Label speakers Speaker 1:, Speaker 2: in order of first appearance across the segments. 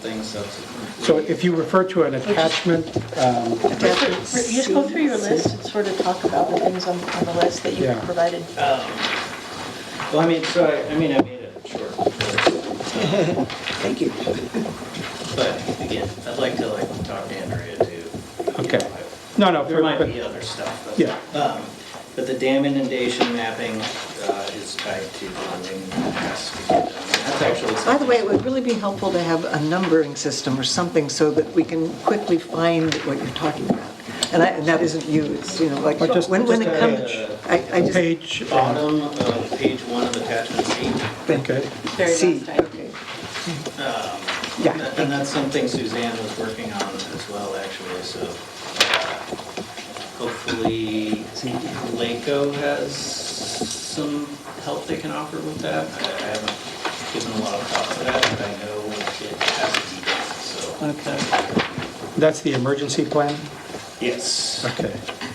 Speaker 1: things subsequent.
Speaker 2: So if you refer to an attachment, um,
Speaker 3: You just go through your list and sort of talk about the things on on the list that you
Speaker 2: Yeah.
Speaker 3: provided.
Speaker 1: Um, Well, I mean, so, I- I mean, I made it short.
Speaker 4: Thank you.
Speaker 1: But again, I'd like to like talk to Andrea too. You
Speaker 2: Okay.
Speaker 1: know,
Speaker 2: no, no.
Speaker 1: I-
Speaker 2: for-
Speaker 1: There might
Speaker 2: but-
Speaker 1: be other stuff. but-
Speaker 2: Yeah.
Speaker 1: um, But the dam inundation mapping uh, is tied to funding. that has to be done. That's actually
Speaker 4: By the way, it
Speaker 1: something.
Speaker 4: would really be helpful to have a numbering system or something so that we can quickly find what you're talking about. And I- and that isn't you, it's, you know, like,
Speaker 2: Or just-
Speaker 4: when when
Speaker 2: just
Speaker 4: it
Speaker 2: a-
Speaker 4: comes, I I just,
Speaker 2: Page, uh,
Speaker 1: Bottom of page one of attachment C.
Speaker 2: okay,
Speaker 3: Very last
Speaker 4: C.
Speaker 3: time.
Speaker 4: Okay.
Speaker 1: And
Speaker 4: Yeah,
Speaker 1: that- and that's something Suzanne was working on as well, actually, so uh, hopefully Laco has some help they can offer with that. I I haven't given a lot of thought to that, but I know it has to be done, so. Okay.
Speaker 2: that's the emergency plan?
Speaker 1: Yes.
Speaker 2: Okay.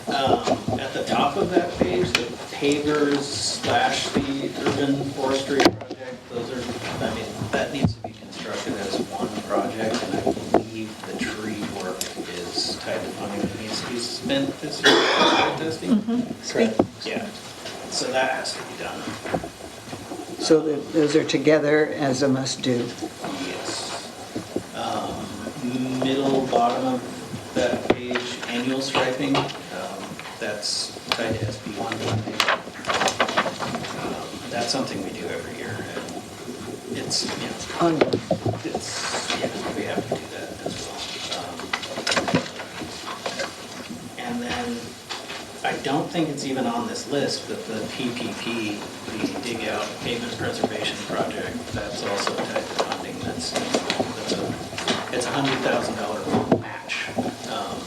Speaker 1: Um, At the top of that page, the pavers slash the urban forestry project, those are, I mean, that needs to be constructed as one project, and I believe the tree work is tied to funding that needs to be spent this year for site testing.
Speaker 4: Speak.
Speaker 1: Yeah, so that has to be done,
Speaker 4: so that those are together as a must-do.
Speaker 1: yes. Um, Middle bottom of that page, annual striping, um, that's tied to SB one funding. That's something we do every year. and It's, you know,
Speaker 4: On-
Speaker 1: it's, yeah, we have to do that as well. Um, And then, I don't think it's even on this list, but the PPP, the Dig Out Pavement Preservation Project, that's also a type of funding that's, that's a, it's a hundred thousand dollar match um,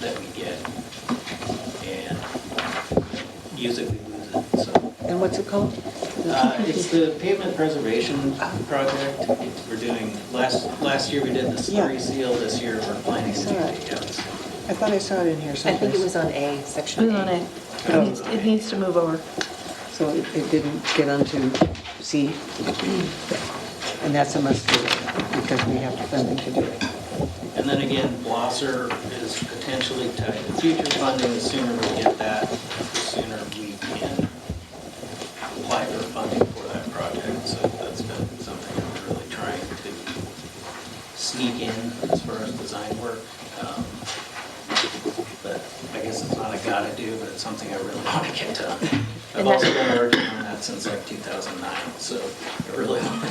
Speaker 1: that we get. And use it, we lose it, so.
Speaker 4: And what's it called?
Speaker 1: Uh, It's the pavement preservation project. It's- We're doing, last, last year we did the slurry
Speaker 4: Yeah.
Speaker 1: seal, this year we're planning to do
Speaker 4: Sorry.
Speaker 1: the others.
Speaker 4: I thought I saw it in here
Speaker 5: I
Speaker 4: someplace.
Speaker 5: think it was on A, section
Speaker 3: Move on it. It
Speaker 1: Um,
Speaker 3: needs- It needs to move over.
Speaker 4: So it it didn't get onto C? And that's a must-do, because we have funding to do it.
Speaker 1: And then again, Blosser is potentially tied to future funding. The sooner we get that, the sooner we can apply for funding for that project. So that's been something I'm really trying to sneak in as far as design work. Um, But I guess it's not a gotta do, but it's something I really want to get done. I've
Speaker 5: And
Speaker 1: also
Speaker 5: that-
Speaker 1: been working on that since like 2009, so I really want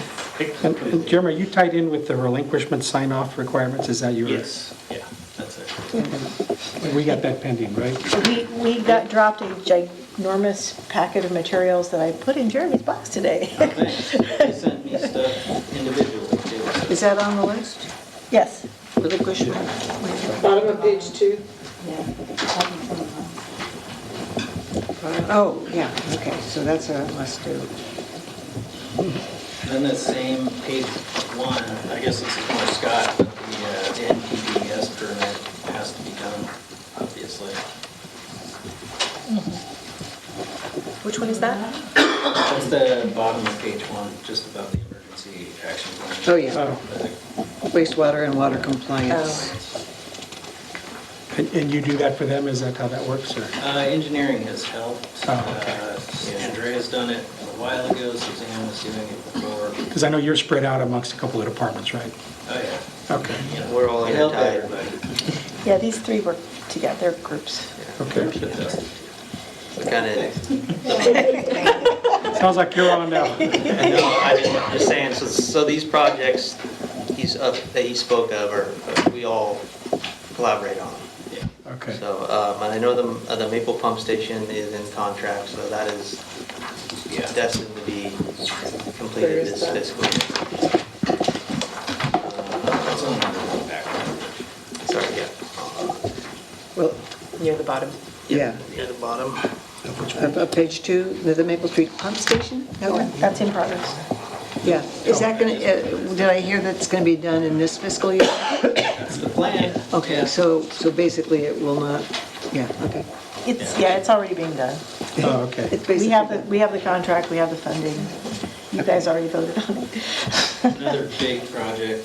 Speaker 2: And- and
Speaker 1: to.
Speaker 2: Jim, are you tied in with the relinquishment sign-off requirements? Is that your?
Speaker 1: Yes, yeah, that's it.
Speaker 2: We got that pending, right?
Speaker 3: We, we got dropped a ginormous packet of materials that I put in Jeremy's box today.
Speaker 1: Thanks. They sent me stuff individually too.
Speaker 4: Is that on the list?
Speaker 3: Yes.
Speaker 4: With a question mark?
Speaker 6: Bottom of page two.
Speaker 4: Oh, yeah, okay, so that's a must-do.
Speaker 1: Then the same page one, I guess this is more Scott, but the uh, the NPDES permit has to be done, obviously.
Speaker 5: Which one is that?
Speaker 1: That's the bottom of page one, just above the emergency action plan.
Speaker 4: Oh, yeah,
Speaker 2: Oh.
Speaker 4: wastewater and water compliance.
Speaker 2: And and you do that for them? Is that how that works, or?
Speaker 1: Uh, Engineering has helped.
Speaker 2: Oh,
Speaker 1: Uh, Andrea's done it a while ago, Suzanne was doing it before.
Speaker 2: Because I know you're spread out amongst a couple of departments, right?
Speaker 1: Oh,
Speaker 2: Okay,
Speaker 1: yeah.
Speaker 7: We're all
Speaker 1: It helped
Speaker 7: intertied.
Speaker 1: everybody.
Speaker 3: Yeah, these three work together, they're groups.
Speaker 2: okay.
Speaker 7: We're kind of,
Speaker 2: Sounds like you're on now.
Speaker 7: no, I'm just saying, so, so these projects he's, up- that he spoke of are, uh, we all collaborate on.
Speaker 1: Yeah.
Speaker 2: Okay.
Speaker 7: So, um, and I know the, uh, the Maple Pump Station is in contract, so that is
Speaker 1: Yeah.
Speaker 7: destined to be
Speaker 6: Where
Speaker 7: completed
Speaker 6: is
Speaker 7: this
Speaker 6: that?
Speaker 7: fiscal year.
Speaker 1: That's on the back.
Speaker 7: Sorry, yeah.
Speaker 4: Well,
Speaker 5: Near the bottom.
Speaker 4: yeah,
Speaker 7: Near the bottom.
Speaker 4: Up- up page two, the the Maple Street Pump Station, that one?
Speaker 3: That's in progress.
Speaker 4: Yeah, is that going to, did I hear that's going to be done in this fiscal year?
Speaker 1: That's the plan.
Speaker 4: Okay, so, so basically it will not, yeah, okay.
Speaker 3: It's, yeah, it's already being done.
Speaker 2: Oh, okay.
Speaker 4: It's
Speaker 3: We
Speaker 4: basically
Speaker 3: have, the
Speaker 4: done.
Speaker 3: we have the contract, we have the funding. You guys already voted on it.
Speaker 1: Another big project